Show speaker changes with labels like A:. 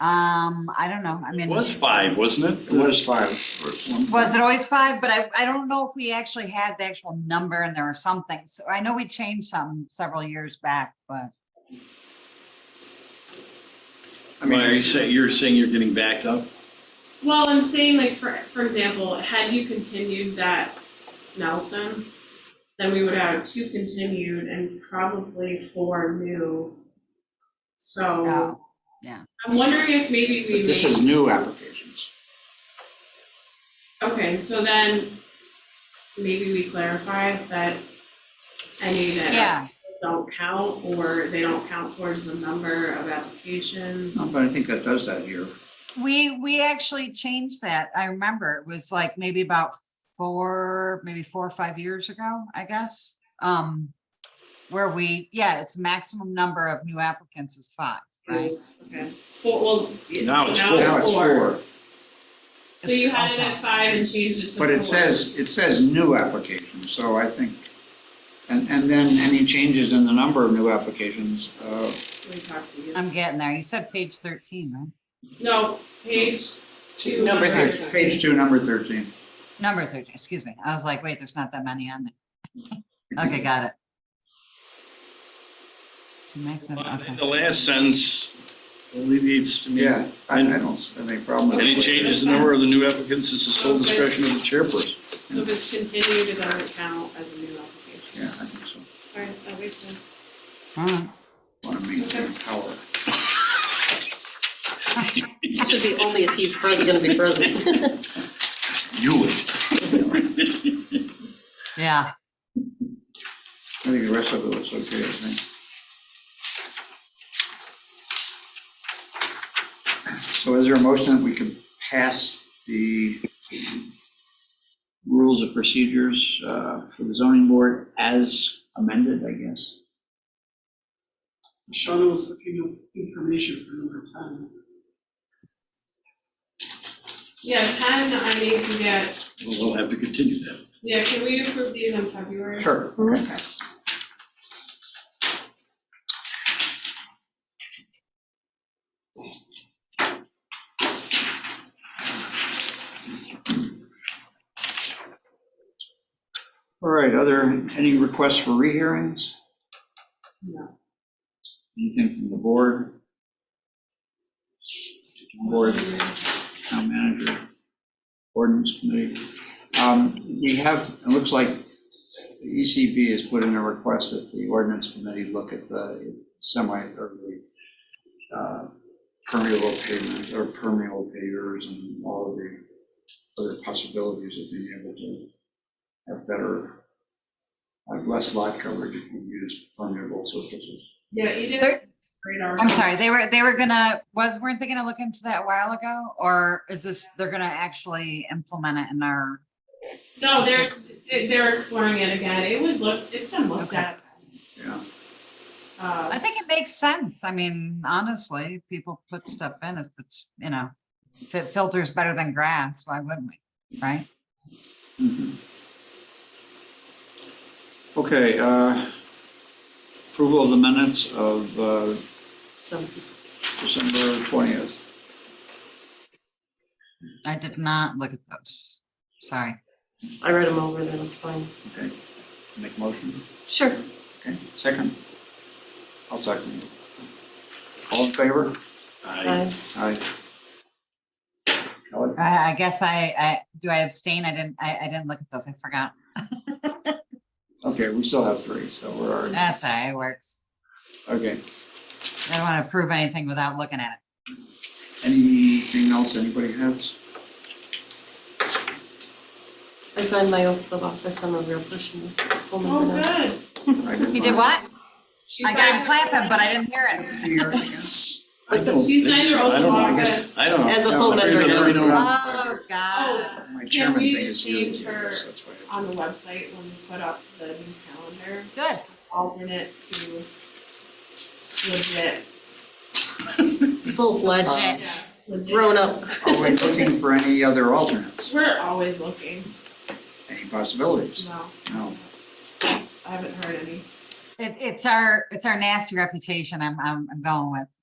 A: Um, I don't know, I mean.
B: It was five, wasn't it?
C: It was five.
A: Was it always five? But I, I don't know if we actually had the actual number and there are some things. I know we changed some several years back, but
C: I
B: Why are you
C: mean,
B: saying, you're saying you're getting backed up?
D: Well, I'm saying like for for example, had you continued that Nelson, then we would have two continued and probably four new.
A: Oh,
D: So.
A: yeah.
D: I'm wondering if maybe we
C: but this is
D: make,
C: new applications.
D: okay, so then maybe we clarify that any that
A: yeah,
D: don't count or they don't count towards the number of applications.
A: Oh,
C: No, But I think that does that here.
A: we, we actually changed that. I remember it was like maybe about four, maybe four or five years ago, I guess. Um, where we, yeah, it's maximum number of new applicants is five,
D: Mm-hmm.
A: right?
D: Okay, four, well, it-
B: Now it's
D: so
B: four.
C: Now it's four,
D: So you had it at five and changed it to four.
C: but it says, it says new applications, so I think. And, and then any changes in the number of new applications, uh,
D: Let me talk to you.
A: I'm getting there. You said page thirteen, right?
D: No, page two.
E: Number
C: page uh, page two, number thirteen.
A: Number thirteen, excuse me. I was like, wait, there's not that many on there. Okay, got it. To make some- okay.
B: The last sentence alleviates, I mean,
C: Yeah, I, I don't have any problem with it.
B: any changes in the number of the new applicants is the sole discretion of the chairperson.
D: So if it's continued, it doesn't count as a new application.
C: Yeah, I think so.
D: Alright, that makes sense.
A: All right.
C: Want to maintain power.
E: This would be only if he's pres- gonna be present.
B: You would.
A: Yeah,
C: I think the rest of it looks okay, I think. So is there a motion that we can pass the rules of procedures uh, for the zoning board as amended, I guess?
F: Sean was looking up information for number ten.
D: Yeah, ten, I need to get,
B: We'll have to continue that.
D: yeah, can we approve these in February?
C: Sure. okay. All right, are there any requests for rehearings?
D: No.
C: Anything from the board? Board, town manager, ordinance committee? Um, We have, it looks like the E ECB has put in a request that the ordinance committee look at the semi, or the uh, permeable pavement, or permeable pavers and all of the other possibilities of being able to have better, have less lot coverage if we use permeable surfaces.
D: Yeah, you did.
A: There-
D: Great already.
A: I'm sorry, they were, they were gonna, was, weren't they gonna look into that a while ago? Or is this, they're gonna actually implement it in our,
D: No, they're, they're exploring it again. It was looked, it's been looked
A: Okay.
D: at.
C: Yeah.
A: I
D: Uh,
A: think it makes sense. I mean, honestly, if people put stuff in, if it's, you know, if it filters better than grass, why wouldn't we, right?
C: Mhm. Okay, uh, approval of the minutes of uh,
E: So,
C: December 20th.
A: I did not look at those. Sorry.
E: I read them over, then I'm fine.
C: Okay, make motion.
E: Sure.
C: Okay, second. I'll second. All in favor?
B: I,
E: Aye.
C: Aye. Kelly?
A: I, I guess I, I, do I abstain? I didn't, I, I didn't look at those. I forgot.
C: Okay, we still have three, so we're, already-
D: Uh.
A: That's all right, it works.
C: okay.
A: I don't want to approve anything without looking at it.
C: Anything else anybody has?
E: I signed my oath of office, I'm a real person. full
D: oh,
E: member now.
D: good.
A: You did what?
D: She
A: I got him
D: signed-
A: clapping, but I didn't hear it.
B: I don't
D: She
B: think
D: signed her
B: so. I
D: oath of
B: don't know. I
D: office.
B: I don't know.
E: As a full
B: Afraid
E: member
B: of
E: now.
B: every number.
A: Oh, God.
D: Oh,
C: My
D: Uh, Can
C: chairman
D: we
C: thing is you.
D: change her-
C: so that's why I-
D: on the website when we put up the new calendar,
A: Good.
D: alternate to legit,
E: Full-fledged,
A: Legit.
D: legit.
E: grown-up.
C: Are we Oh, looking for any other alternates?
D: We're always looking,
C: Any possibilities?
D: no,
C: No.
D: I haven't heard any.
A: It, it's our, it's our nasty reputation I'm, I'm, I'm going with.